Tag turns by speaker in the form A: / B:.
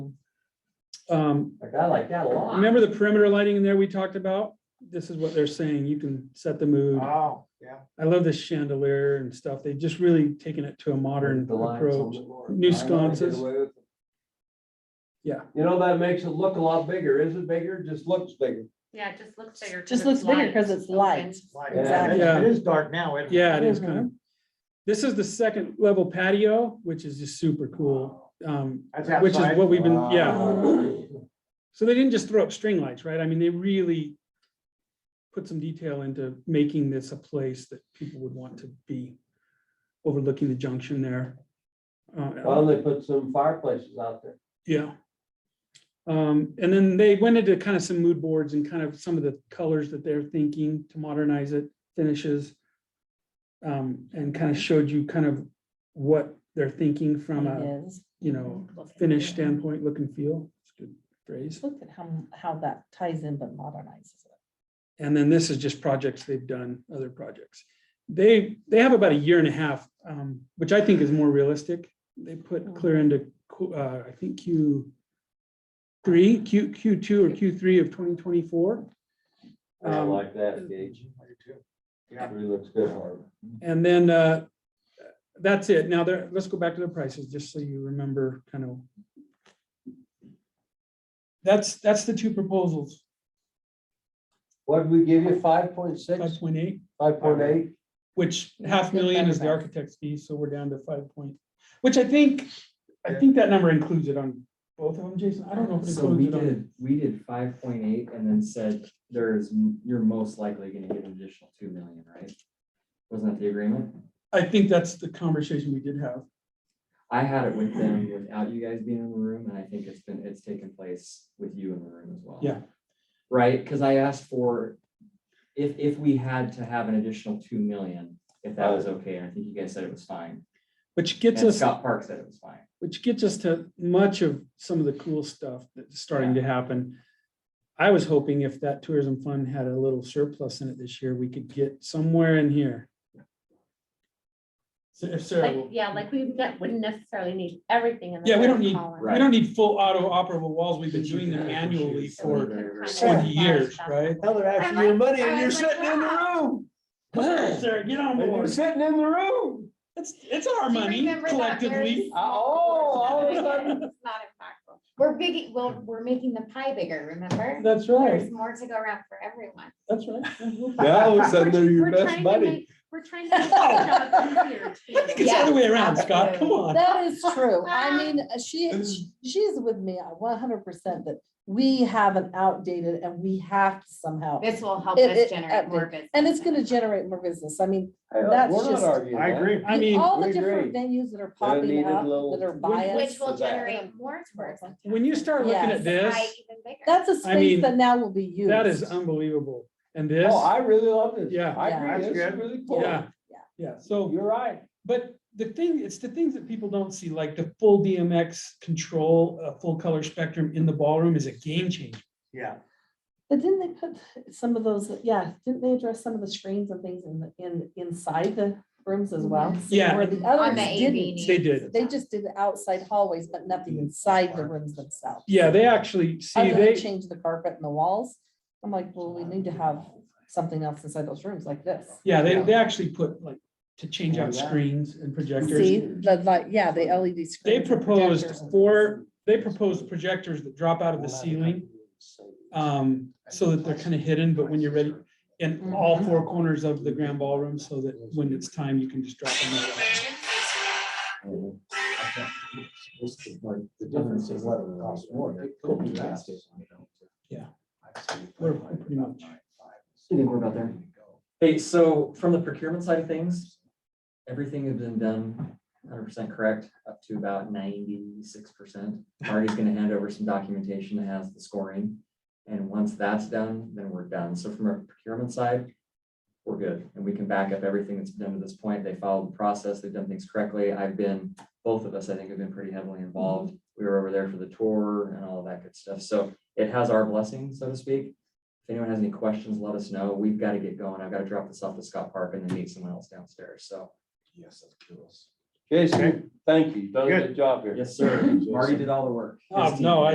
A: Um,
B: Like, I like that a lot.
A: remember the perimeter lighting in there we talked about? This is what they're saying. You can set the mood.
B: Ah.
C: Oh, yeah.
A: I love this chandelier and stuff. They've just really taken it to a modern
B: The lines on
A: approach.
B: the floor.
A: New
B: I know they did
A: sconces.
B: away with it.
A: Yeah.
B: You know, that makes it look a lot bigger. Is it bigger? Just looks bigger.
D: Yeah, it just looks bigger. 'cause
E: Just
D: it's
E: looks bigger
D: light.
E: 'cause it's light.
C: Like,
B: Exactly.
C: yeah, It is dark now. isn't it?
A: Yeah, it is kind of. This is the second level patio, which is just super cool. Um,
C: That's
A: which is
C: outside. Uh,
A: what we've been, yeah.
B: Wow.
A: So they didn't just throw up string lights, right? I mean, they really put some detail into making this a place that people would want to be overlooking the junction there. Uh,
B: Well, they put some fireplaces out there.
A: yeah. Um, and then they went into kind of some mood boards and kind of some of the colors that they're thinking to modernize it, finishes. Um, and kind of showed you kind of what they're thinking from a,
E: It is.
A: you know,
E: Mm-hmm. Look at
A: finish
E: it.
A: standpoint, look and feel. It's a good phrase.
E: Just Look at how, how that ties in but modernizes it.
A: And then this is just projects they've done, other projects. They, they have about a year and a half, um, which I think is more realistic. They put clear into, Q- uh, I think Q three, Q, Q two or Q three of twenty twenty-four.
B: I
A: Um,
B: like that, Gage.
C: Yeah.
B: Really looks good, Harv.
A: And then, uh, that's it. Now there, let's go back to the prices, just so you remember kind of. That's, that's the two proposals,
B: What did we give you? Five point
A: five
B: six,
A: point eight,
B: five point eight?
A: which half million is the architect's fee, so we're down to five point, which I think, I think that number includes it on both of them, Jason. I don't know if it
F: So we
A: includes it on.
F: did, we did five point eight and then said there's, m- you're most likely gonna get an additional two million, right? Wasn't that the agreement?
A: I think that's the conversation we did have.
F: I had it with them without you guys being in the room and I think it's been, it's taken place with you in the room as well.
A: Yeah.
F: Right, cause I asked for, if, if we had to have an additional two million, if that was okay, and I think you guys said it was fine.
A: Which gets
F: And
A: us,
F: Scott Park said it was fine.
A: which gets us to much of some of the cool stuff that's starting to happen. I was hoping if that tourism fund had a little surplus in it this year, we could get somewhere in here. So if Sarah,
D: Like,
A: will-
D: yeah, like we ne- wouldn't necessarily need everything in the.
A: Yeah, we don't
D: third
A: need-
D: column.
A: we
F: Right.
A: don't need full auto operable walls. We've been doing them
F: Yeah,
A: annually
F: she's-
D: So we
A: for
D: could kind of
A: 20
D: modify
A: years,
D: stuff.
A: right?
B: Now they're
D: I
B: after your
D: like-
B: money and
D: I
B: you're
D: was like,
B: sitting in the
D: wow.
B: room.
A: Sarah, get on
B: And you're
A: board.
B: sitting in the room.
A: It's, it's our
D: Do you
A: money
D: remember that, Mary?
A: collectively. oh.
B: Oh, all of a sudden.
D: It's not impactful.
G: We're big, well, we're making the pie bigger, remember?
A: That's
G: There's more to go around for everyone.
A: That's right.
B: Yeah, all of a sudden they're your
D: We're
B: best
D: trying to
B: buddy.
D: make- We're trying to. make the job easier, too.
A: I think it's the other way around, Scott. Come on.
E: That is true. I mean, uh, she, she's with me uh, one hundred percent that we have an outdated and we have to somehow.
G: This will help
E: It-
G: us
E: it-
G: generate more
E: update.
G: business.
E: And it's gonna generate more business. I mean,
B: Hey, look,
E: That's
B: we're not
E: just-
B: arguing
C: I
B: that.
C: agree.
A: I mean,
E: all the
B: we
E: different venues that are popping
B: needed
E: up
B: little-
E: that are
A: Which-
E: biased.
G: Which will
B: for that.
G: generate more tourism.
A: when you start looking at
E: Yes.
A: this,
G: Pie even bigger.
E: That's a
A: mean,
E: space that now will be used.
A: that is unbelievable. And this,
B: Oh, I really love this.
A: Yeah.
B: I
E: Yeah.
B: agree.
C: That's
B: This is
C: good.
B: really cool.
A: yeah,
E: Yeah.
A: yeah. So,
B: You're right.
A: but the thing, it's the things that people don't see, like the full DMX control, uh, full color spectrum in the ballroom is a game changer.
C: Yeah.
E: But didn't they put some of those, yeah, didn't they address some of the screens and things in, the in, inside the rooms as well?
A: Mm-hmm. Yeah.
E: Where the
G: On
E: others
G: the AV.
E: didn't.
A: They did.
E: They just did the outside hallways, but nothing inside the rooms themselves.
A: Yeah, they actually, see,
E: Other than
A: they,
E: change the carpet and the walls. I'm like, well, we need to have something else inside those rooms like this.
A: yeah, Oh, they, they actually put like, to change out screens and projectors.
E: See, the, like, yeah, the LED screens.
A: They
E: and
A: proposed
E: projectors and-
A: four, they proposed projectors that drop out of the ceiling. um, so that they're kind of hidden, but when you're ready, in all four corners of the grand ballroom, so that when it's time, you can just drop them. in.
F: The difference is what it costs more.
A: Yeah. We're pretty much.
F: You think we're about there? Hey, so from the procurement side of things, everything has been done hundred percent correct, up to about ninety-six percent. Marty's gonna hand over some documentation that has the scoring. And once that's done, then we're done. So from a procurement side, we're good. And we can back up everything that's been done to this point. They followed the process. They've done things correctly. I've been, both of us, I think, have been pretty heavily involved. We were over there for the tour and all of that good stuff. So it has our blessing, so to speak. If anyone has any questions, let us know. We've got to get going. I've got to drop this off to Scott Park and then meet someone else downstairs. So,
C: Yes, that's cool.
B: Jason, thank you. Um, You've Done a good job here.
F: yes, sir. Marty did all the work. His
A: Oh,
F: team.
A: no,